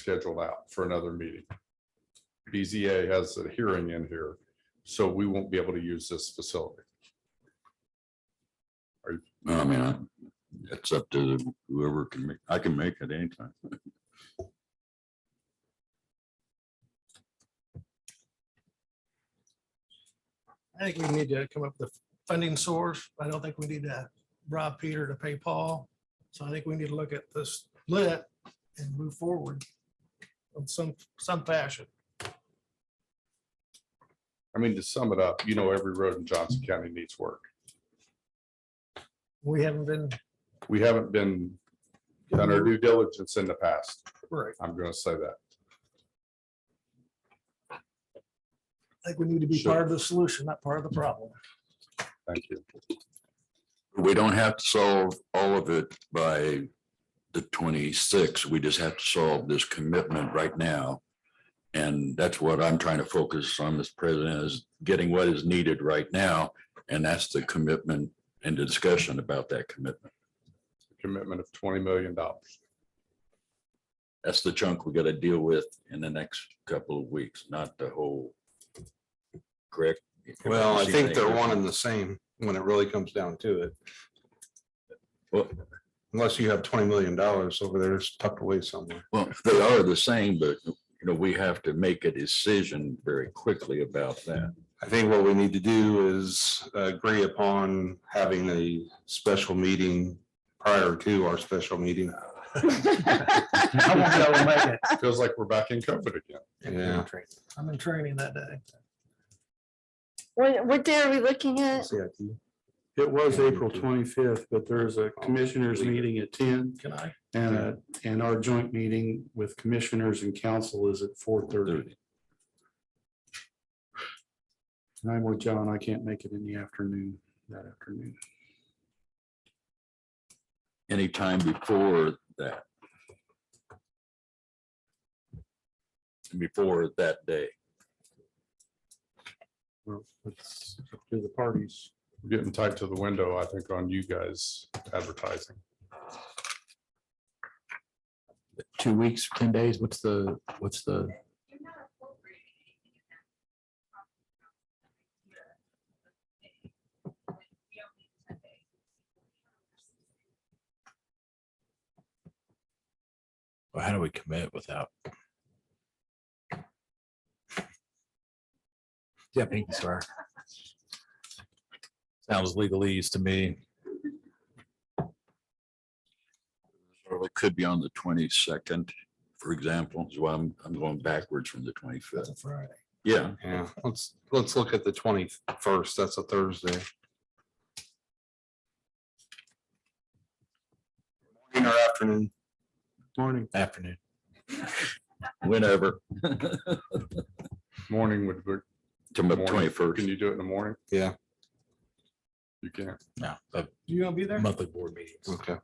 scheduled out for another meeting. BZA has a hearing in here, so we won't be able to use this facility. I mean, I- it's up to whoever can make, I can make it anytime. I think we need to come up with a funding source. I don't think we need to rob Peter to pay Paul. So I think we need to look at this lit and move forward in some, some fashion. I mean, to sum it up, you know, every road in Johnson County needs work. We haven't been, We haven't been done our due diligence in the past. right. I'm going to say that. I think we need to be Sure. part of the solution, not part of the problem. Thank you. We don't have to solve all of it by the twenty-six. We just have to solve this commitment right now. And that's what I'm trying to focus on, Mr. President, is getting what is needed right now. And that's the commitment and the discussion about that commitment. Commitment of $20 million. That's the chunk we gotta deal with in the next couple of weeks, not the whole. Correct? Well, I think they're one and the same when it really comes down to it. Well- Unless you have twenty million dollars over there it's tucked away somewhere. Well, they are the same, but you know, we have to make a decision very quickly about that. I think what we need to do is agree upon having a special meeting prior to our special meeting. Feels like we're back in COVID again. Uh, Yeah. I'm in training that day. What, what day are we looking at? It was Yeah, April we do. twenty-fifth, but there's a commissioners leave it. meeting at ten Can I? and, a- and our joint meeting with commissioners and council is at four thirty. And I'm with John. I can't make it in the afternoon, that afternoon. Anytime before that. Before that day. Well, It's up to the parties. We're Getting tight to the window, I think, on you guys advertising. two weeks, ten days, what's the, what's the, Well, how do we commit without? Deputy Star. Sounds legalese to me. So It could be on the twenty-second, for example, is why I'm, I'm going backwards from the twenty-fifth. Friday. Yeah, Yeah, let's, let's look at the twenty-first. That's a Thursday. Morning or afternoon? Morning. Afternoon. whenever, Morning would work. to the Morning. twenty-first. Can you do it in the morning? Yeah. You can't. No, the You gonna be there? monthly board meetings. It's- Okay.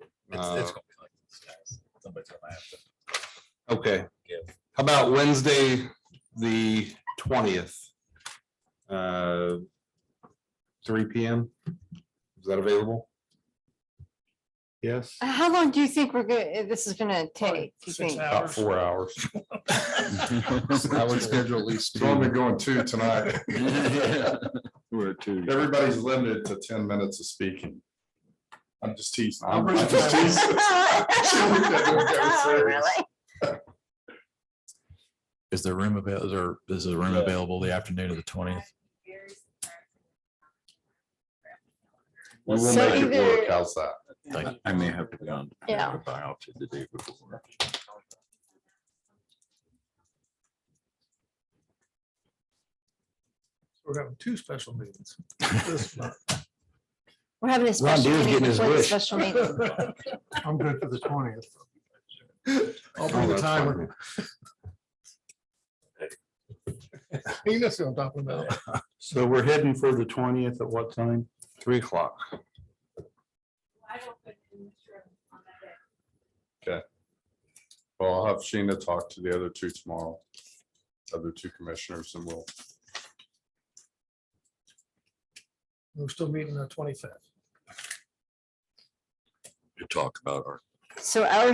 it's Uh, gonna be like this, guys. Somebody's gonna have to- Uh, Okay, Yeah. how about Wednesday, the twentieth? Uh, Three P M? Is that available? Yes. How long do you think we're going, this is gonna take? do you Six think? About four hours. I would schedule at least It's only two. going two tonight. We're two. Everybody's limited to ten minutes of speaking. I'm just teasing. I'll I'm bring it just back. teasing. Oh, really? Is there room avail, is there, is there room available the afternoon of the twentieth? We will So make it either- work. How's that? I- I may have to be on. Yeah. Biopsy the day before. We're having two special meetings. this month. We're having a special Deere's meeting getting his before the wish. special meeting. I'm good for the twentieth. I'll Oh, bring the that's timer. fine. You know what I'm talking about. So we're heading for the twentieth at what time? Three o'clock. Well, I'll have Sheena talk to the other two tomorrow. Other two commissioners and we'll, We're still meeting the twenty-fifth. To talk about our So our